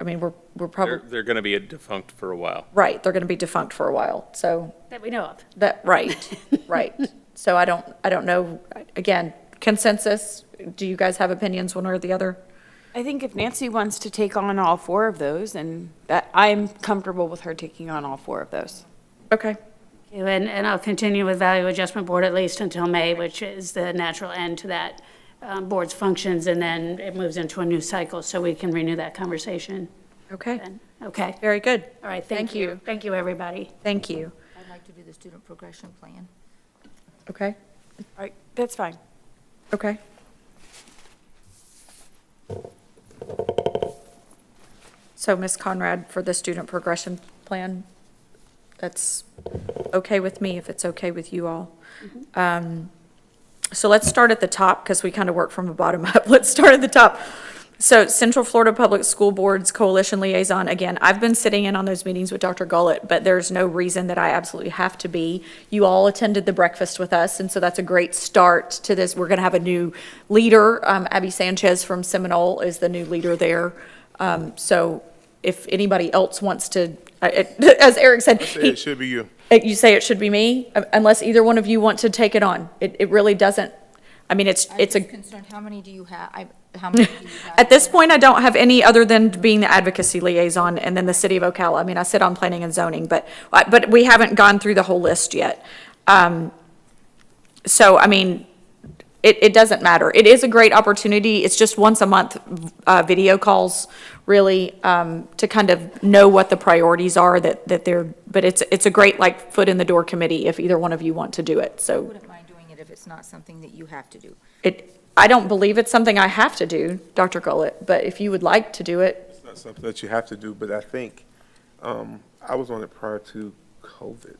I mean, we're, we're They're, probably, they're going to be defunct for a while. right, they're going to be defunct for a while, so that we know of. that, right, right. So I don't, I don't know, again, consensus, do you guys have opinions one or the other? I think if Nancy wants to take on all four of those, and that, I'm comfortable with her taking on all four of those. Okay, And, and I'll continue with Value Adjustment Board at least until May, which is the natural end to that um, board's functions, and then it moves into a new cycle, so we can renew that conversation okay, then. Okay, very good, all right, Thank thank you. you. Thank you, everybody. thank you, I'd like to do the student progression plan. okay, All right, that's fine. okay. So Ms. Conrad, for the student progression plan, that's okay with me, if it's okay with you all. Um, So let's start at the top, because we kind of work from the bottom up. Let's start at the top. So Central Florida Public School Boards Coalition Liaison, again, I've been sitting in on those meetings with Dr. Gullett, but there's no reason that I absolutely have to be. You all attended the breakfast with us, and so that's a great start to this. We're going to have a new leader. Um, Abby Sanchez from Seminole is the new leader there. Um, So if anybody else wants to, I- I- as Eric said. he- It should be you. it- You say it should be me, um, unless either one of you want to take it on. It, it really doesn't, I mean, it's, it's I'm just a, concerned, how many do you have, I, how many do you have? at this point, I don't have any other than being the advocacy liaison and then the city of Ocala. I mean, I sit on planning and zoning, but, uh, but we haven't gone through the whole list yet. Um, So, I mean, it, it doesn't matter. It is a great opportunity. It's just once a month, uh, video calls, really, um, to kind of know what the priorities are that, that they're, but it's, it's a great, like, foot in the door committee if either one of you want to do it, I so. Wouldn't mind doing it if it's not something that you have to do. It, I don't believe it's something I have to do, Dr. Gullett, but if you would like to do it, It's not something that you have to do, but I think, um, I was on it prior to COVID.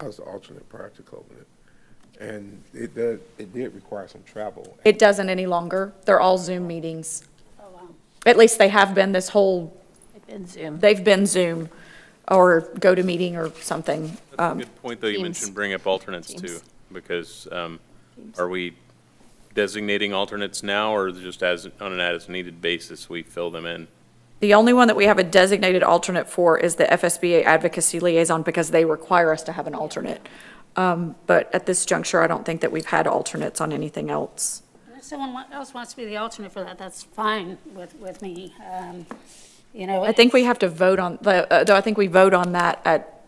I was the alternate prior to COVID. And it did, it did require some travel. it doesn't any longer. They're all Zoom meetings. At least they have been this whole, they've been Zoom or GoToMeeting or something. That's a good point, though, you Um, Teams. mentioned bring up alternates too, Teams. because um, are we designating alternates now or just as, on an as-needed basis, we fill them in? The only one that we have a designated alternate for is the FSBA Advocacy Liaison because they require us to have an alternate. Um, But at this juncture, I don't think that we've had alternates on anything else. If someone wa- else wants to be the alternate for that, that's fine with, with me. Um, You know, I think we have to vote on, the- uh, though I think we vote on that at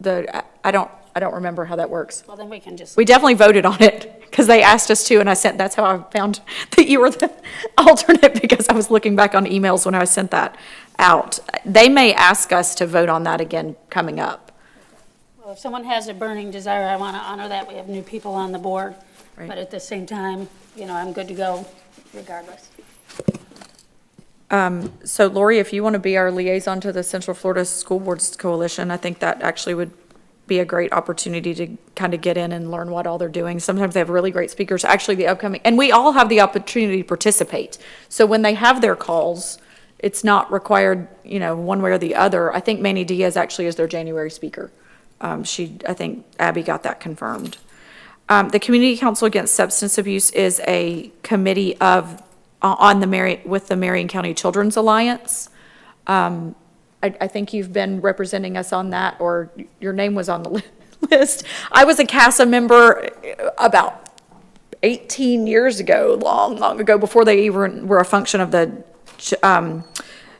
the, I- I don't, I don't remember how that works. well, then we can just, We definitely voted on it because they asked us to and I sent, that's how I found that you were the alternate because I was looking back on emails when I sent that out. They may ask us to vote on that again coming up. well, if someone has a burning desire, I want to honor that. We have new people on the board. Right. But at the same time, you know, I'm good to go regardless. So Lori, if you want to be our liaison to the Central Florida School Boards Coalition, I think that actually would be a great opportunity to kind of get in and learn what all they're doing. Sometimes they have really great speakers, actually the upcoming, and we all have the opportunity to participate. So when they have their calls, it's not required, you know, one way or the other. I think Manny Diaz actually is their January speaker. Um, she, I think Abby got that confirmed. Um, the Community Council Against Substance Abuse is a committee of, on the Mary, with the Marion County Children's Alliance. I, I think you've been representing us on that, or your name was on the li- list. I was a CASA member about 18 years ago, long, long ago, before they even were a function of the Ch- um,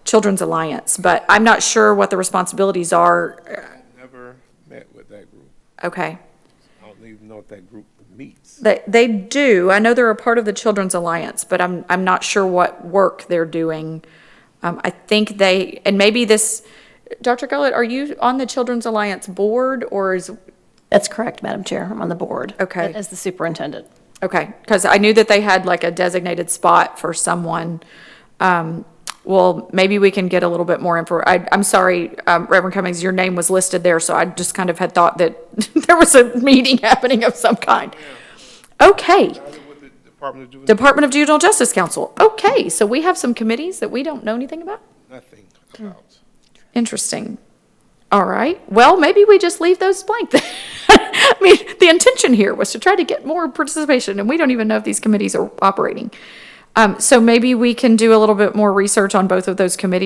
Children's Alliance. But I'm not sure what the responsibilities are. Never met with that group. Okay. I don't even know if that group meets. They, they do. I know they're a part of the Children's Alliance, but I'm, I'm not sure what work they're doing. Um, I think they, and maybe this, Dr. Gullett, are you on the Children's Alliance board or is, That's correct, Madam Chair. I'm on the board. Okay. As the superintendent. okay, because I knew that they had like a designated spot for someone. Um, well, maybe we can get a little bit more info. I, I'm sorry, um, Reverend Cummings, your name was listed there, so I just kind of had thought that there was a meeting happening of some kind. Okay. With the Department of Juvenile, Department of Juvenile Justice Council. Okay, so we have some committees that we don't know anything about? Hmm. nothing about. Interesting. All right, well, maybe we just leave those blank then. I mean, the intention here was to try to get more participation, and we don't even know if these committees are operating. Um, so maybe we can do a little bit more research on both of those committees